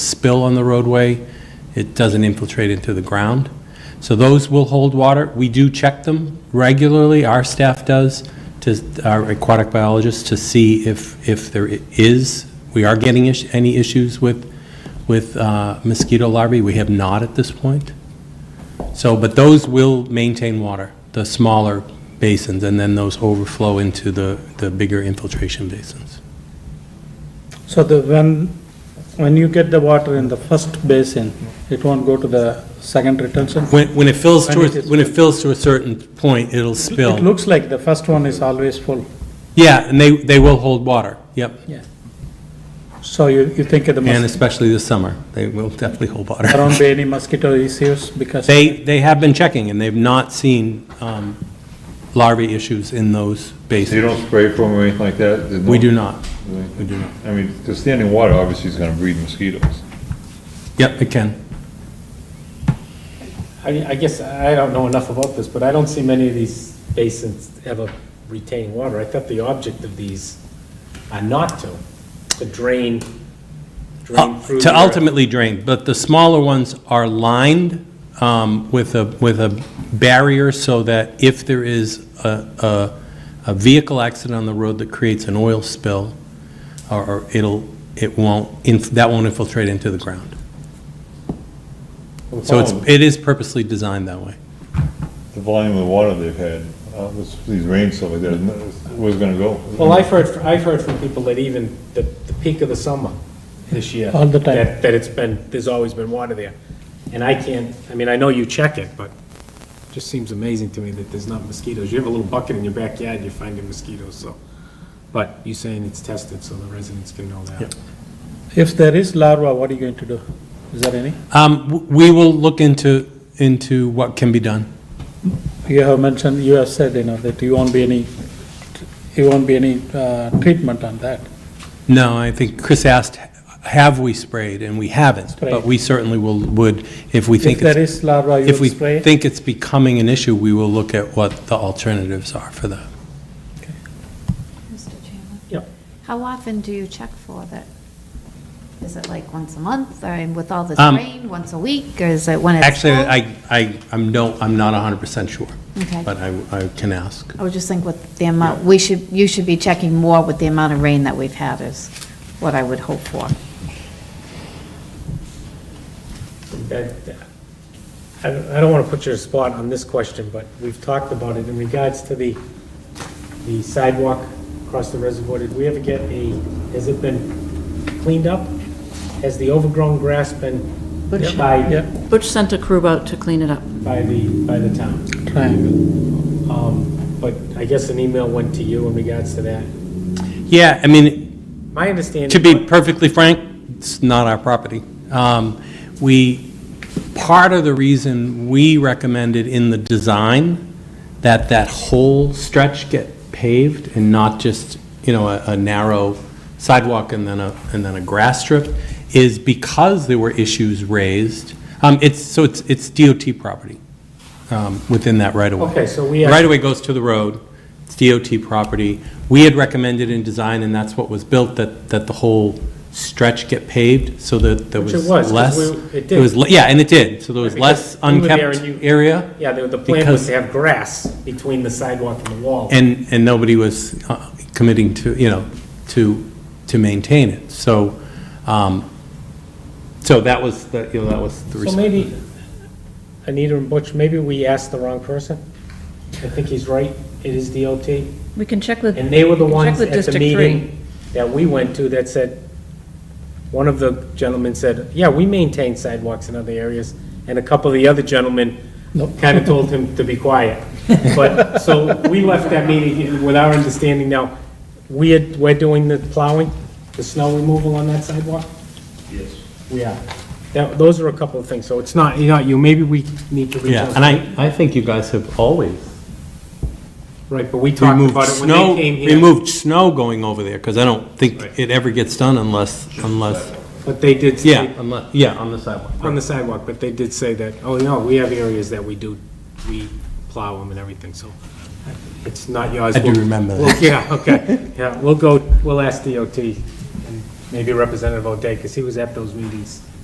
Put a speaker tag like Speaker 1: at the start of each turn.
Speaker 1: spill on the roadway, it doesn't infiltrate into the ground. So those will hold water. We do check them regularly, our staff does, to our aquatic biologists, to see if, if there is, we are getting is- any issues with, with uh, mosquito larvae. We have not at this point. So, but those will maintain water, the smaller basins, and then those overflow into the, the bigger infiltration basins.
Speaker 2: So the, when, when you get the water in the first basin, it won't go to the second retention?
Speaker 1: When, when it fills
Speaker 2: When
Speaker 1: to,
Speaker 2: it
Speaker 1: a-
Speaker 2: is-
Speaker 1: when it fills to a certain point, it'll spill.
Speaker 2: It looks like the first one is always full,
Speaker 1: Yeah, and they, they will hold water, yep.
Speaker 2: yeah. So you, you think the
Speaker 1: And
Speaker 2: mosquito,
Speaker 1: especially this summer, they will definitely hold
Speaker 2: there
Speaker 1: water.
Speaker 2: won't be any mosquito issues because?
Speaker 1: They, they have been checking, and they've not seen um, larvae issues in those
Speaker 3: So you
Speaker 1: basins.
Speaker 3: don't spray for them or anything like that? There's
Speaker 1: We
Speaker 3: no-
Speaker 1: do not, we do not.
Speaker 3: I mean, the standing water obviously is gonna breed mosquitoes.
Speaker 1: Yep, it can.
Speaker 4: I mean, I guess, I don't know enough about this, but I don't see many of these basins ever retain water. I thought the object of these are not to, to drain, drain through.
Speaker 1: Uh, To
Speaker 4: the earth.
Speaker 1: ultimately drain, but the smaller ones are lined um, with a, with a barrier so that if there is a, a, a vehicle accident on the road that creates an oil spill, or- or it'll, it won't, inf- that won't infiltrate into the ground. So it's,
Speaker 4: Oh.
Speaker 1: it is purposely designed that way.
Speaker 3: The volume of water they've had, uh, this, these rains, stuff like that, where's it gonna go?
Speaker 4: Well, I've heard, I've heard from people that even the, the peak of the summer this year.
Speaker 2: All the time.
Speaker 4: That, that it's been, there's always been water there. And I can't, I mean, I know you check it, but it just seems amazing to me that there's not mosquitoes. You have a little bucket in your backyard, you're finding mosquitoes, so. But you're saying it's tested, so the residents can know that.
Speaker 2: If there is larva, what are you going to do? Is there any?
Speaker 1: Um, w- We will look into, into what can be done.
Speaker 2: You have mentioned, you have said, you know, that you won't be any, you won't be any, uh, treatment on that.
Speaker 1: No, I think Chris asked, have we sprayed, and we haven't, but
Speaker 2: Sprayed.
Speaker 1: we certainly will, would, if we think
Speaker 2: If
Speaker 1: it's...
Speaker 2: there is larva, you
Speaker 1: If
Speaker 2: will
Speaker 1: we
Speaker 2: spray it?
Speaker 1: think it's becoming an issue, we will look at what the alternatives are for that.
Speaker 5: Mr. Chairman?
Speaker 4: Yep.
Speaker 5: How often do you check for that? Is it like once a month, or with all this
Speaker 1: Um,
Speaker 5: rain, once a week, or is it when it's
Speaker 1: Actually,
Speaker 5: full?
Speaker 1: I, I, I'm no, I'm not 100% sure,
Speaker 5: Okay,
Speaker 1: but I, I can ask.
Speaker 5: I would just think with the amount, we should, you should be checking more with the amount of rain that we've had is what I would hope for.
Speaker 4: That, I don't- I don't want to put you on the spot on this question, but we've talked about it in regards to the, the sidewalk across the reservoir. Did we ever get a, has it been cleaned up? Has the overgrown grass been
Speaker 6: Butch-
Speaker 4: by,
Speaker 2: Yeah,
Speaker 6: Butch sent a crew out to clean it up.
Speaker 4: by the, by the town?
Speaker 2: triangle.
Speaker 4: Um, But I guess an email went to you in regards to that.
Speaker 1: Yeah, I mean,
Speaker 4: My understanding.
Speaker 1: to be perfectly frank, it's not our property. Um, We, part of the reason we recommended in the design that that whole stretch get paved and not just, you know, a, a narrow sidewalk and then a, and then a grass strip, is because there were issues raised. Um, it's, so it's, it's DOT property, um, within that right of way.
Speaker 4: Okay, so we.
Speaker 1: The Right-of-way goes to the road, it's DOT property. We had recommended in design, and that's what was built, that, that the whole stretch get paved, so that there
Speaker 4: Which
Speaker 1: was
Speaker 4: it was, 'cause
Speaker 1: less.
Speaker 4: we- it
Speaker 1: was
Speaker 4: did.
Speaker 1: le- Yeah, and it did, so there was
Speaker 4: Right, because
Speaker 1: less
Speaker 4: we were there
Speaker 1: unkept
Speaker 4: and you-
Speaker 1: area,
Speaker 4: Yeah, the the plan
Speaker 1: Because-
Speaker 4: was to have grass between the sidewalk and the wall.
Speaker 1: and, and nobody was uh, committing to, you know, to, to maintain it. So, um, so that was, the you know, that was the
Speaker 4: So
Speaker 1: response.
Speaker 4: maybe, Anita and Butch, maybe we asked the wrong person. I think he's right, it is DOT.
Speaker 6: We can check with.
Speaker 4: And they were the
Speaker 6: we can
Speaker 4: ones
Speaker 6: check with
Speaker 4: at the
Speaker 6: District Three.
Speaker 4: meeting that we went to that said, one of the gentlemen said, yeah, we maintain sidewalks in other areas, and a couple of the other gentlemen kind of told him to be quiet. But, so we left that meeting with our understanding now, we had, we're doing the plowing, the snow removal on that sidewalk? Yes. We are. That, those are a couple of things, so it's not, you know, you, maybe we need to reach out.
Speaker 1: Yeah, and I, I think you guys have always
Speaker 4: Right, but we talked
Speaker 1: removed
Speaker 4: about it when
Speaker 1: snow,
Speaker 4: they came here.
Speaker 1: removed snow going over there, because I don't
Speaker 4: Right.
Speaker 1: think it ever gets done unless, unless,
Speaker 4: But they did. say-
Speaker 1: yeah, unless, yeah, on the sidewalk.
Speaker 4: on the sidewalk, but they did say that, oh, no, we have areas that we do, we plow them and everything, so it's not yours.
Speaker 1: I do
Speaker 4: We'll-
Speaker 1: remember
Speaker 4: we'll-
Speaker 1: that.
Speaker 4: Yeah, okay, yeah, we'll go, we'll ask DOT, and maybe Representative O'Day, because he was at those meetings